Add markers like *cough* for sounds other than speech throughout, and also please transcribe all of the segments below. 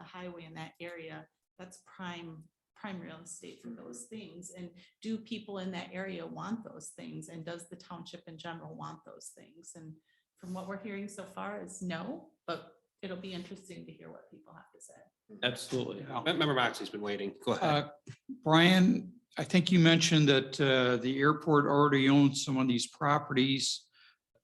highway in that area, that's prime, prime real estate for those things. And do people in that area want those things? And does the township in general want those things? And from what we're hearing so far is no, but it'll be interesting to hear what people have to say. Absolutely. Yeah. Me- Member Moxie's been waiting. Go ahead. Uh, Brian, I think you mentioned that uh, the airport already owns some of these properties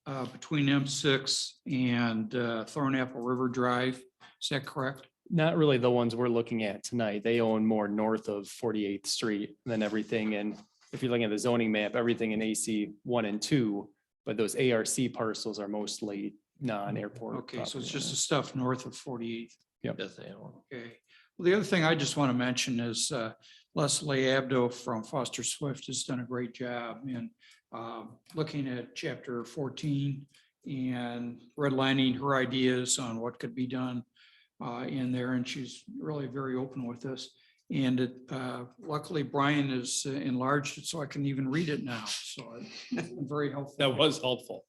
uh, between M6 and uh, Thornapple River Drive. Is that correct? Not really the ones we're looking at tonight. They own more north of 48th Street than everything. And if you're looking at the zoning map, everything in AC one and two, but those ARC parcels are mostly non-airport. Okay, so property it's just the owners. stuff north of 48th. Yes, they are. *laughs* Okay. Well, the other thing I just want to mention is uh, Leslie Abdo from Foster Swift has done a great job in um, looking at chapter 14 and redlining her ideas on what could be done uh, in there. And she's really very open with us. And it, uh, luckily Brian has enlarged it so I can even read it now. So it's been very helpful. That was helpful.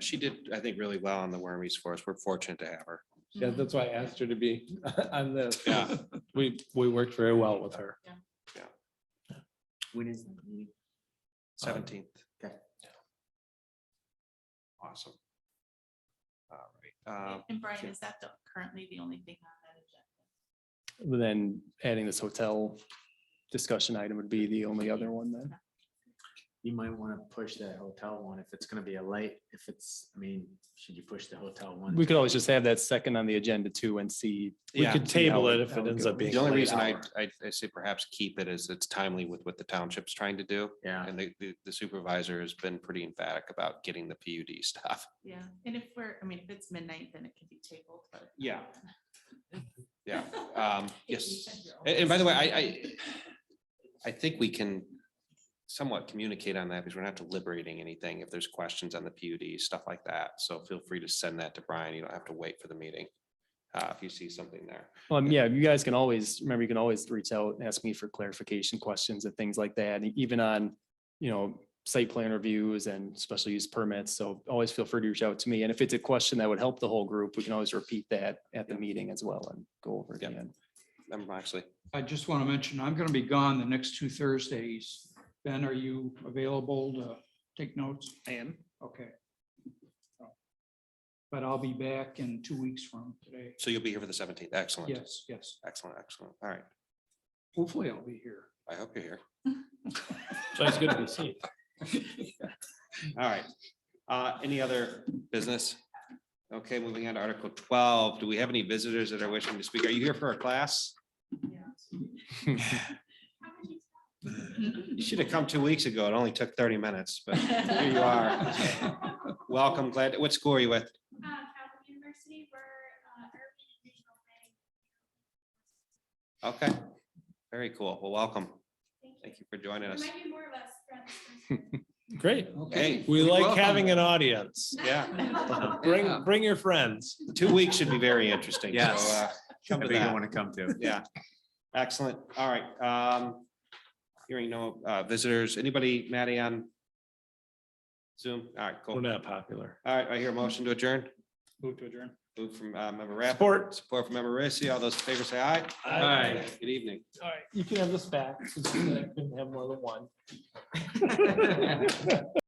She did, I think, really well on the wormies for us. We're fortunate to have her. Yeah, Mm-hmm. that's why I asked her to be *laughs* on this. Yeah. We, we worked very well with her. When is that meeting? Seventeenth. Okay. Awesome. All right. um, And Brian, sure. is that the- currently the only thing on that agenda? But Then adding this hotel discussion item would be the only other one then. You might want to push that hotel one if it's going to be a late, if it's, I mean, should you push the hotel one? We could always just have that second on the agenda too and see. Yeah. could table it if it ends up being The only late reason I, hour. I I say perhaps keep it is it's timely with what the township's trying to do. Yeah, And the- the the supervisor has been pretty emphatic about getting the PUD stuff. Yeah, and if we're, I mean, if it's midnight, then it can be tabled, but. Yeah. *laughs* Yeah, um, You yes. said your own. A- And, by the way, I, I, I think we can somewhat communicate on that because we're not deliberating anything. If there's questions on the PUD, stuff like that. So feel free to send that to Brian. You don't have to wait for the meeting. Uh, if you see something there. Um, yeah, you guys can always, remember, you can always reach out and ask me for clarification questions and things like that, and even on, you know, site plan reviews and special use permits, so always feel free to reach out to me, and if it's a question that would help the whole group, we can always repeat that at the meeting as well and go over it Yep. again. Member Moxley, I just want to mention, I'm going to be gone the next two Thursdays. Ben, are you available to take notes? I am. Okay. But I'll be back in two weeks from today. so you'll be here for the seventeenth. Excellent, Yes, yes. excellent, excellent. All right. Hopefully I'll be here. I hope you're here. So it's good to be seen. All right. Uh, any other business? Okay, moving on to Article twelve. Do we have any visitors that are wishing to speak? Are you here for a class? You should have come two weeks ago. It only took thirty minutes, but here you are. Welcome, glad, what school are you with? Uh, Catholic University, we're, uh, urban and regional planning. Okay, very cool. Well, welcome. Thank you. Thank you for joining There us. might be more of us. throughout this process. Great. *laughs* Okay. We like welcome. having an audience. *laughs* *laughs* Yeah. Yeah. Bring, bring your friends. Two weeks should be very interesting. so, Yes. uh, Come to Whatever you that. want to come to. Yeah, excellent. All right. Um, hearing no uh, visitors, anybody, Maddie on Zoom? All right, cool. We're not popular. All right, I hear a motion to adjourn. Move to adjourn. Move from uh, member Rath. Support. Support from member Rissy. All those in favor say aye. Aye. Good evening. All *laughs* right, you can have this back. since I Couldn't have more than one.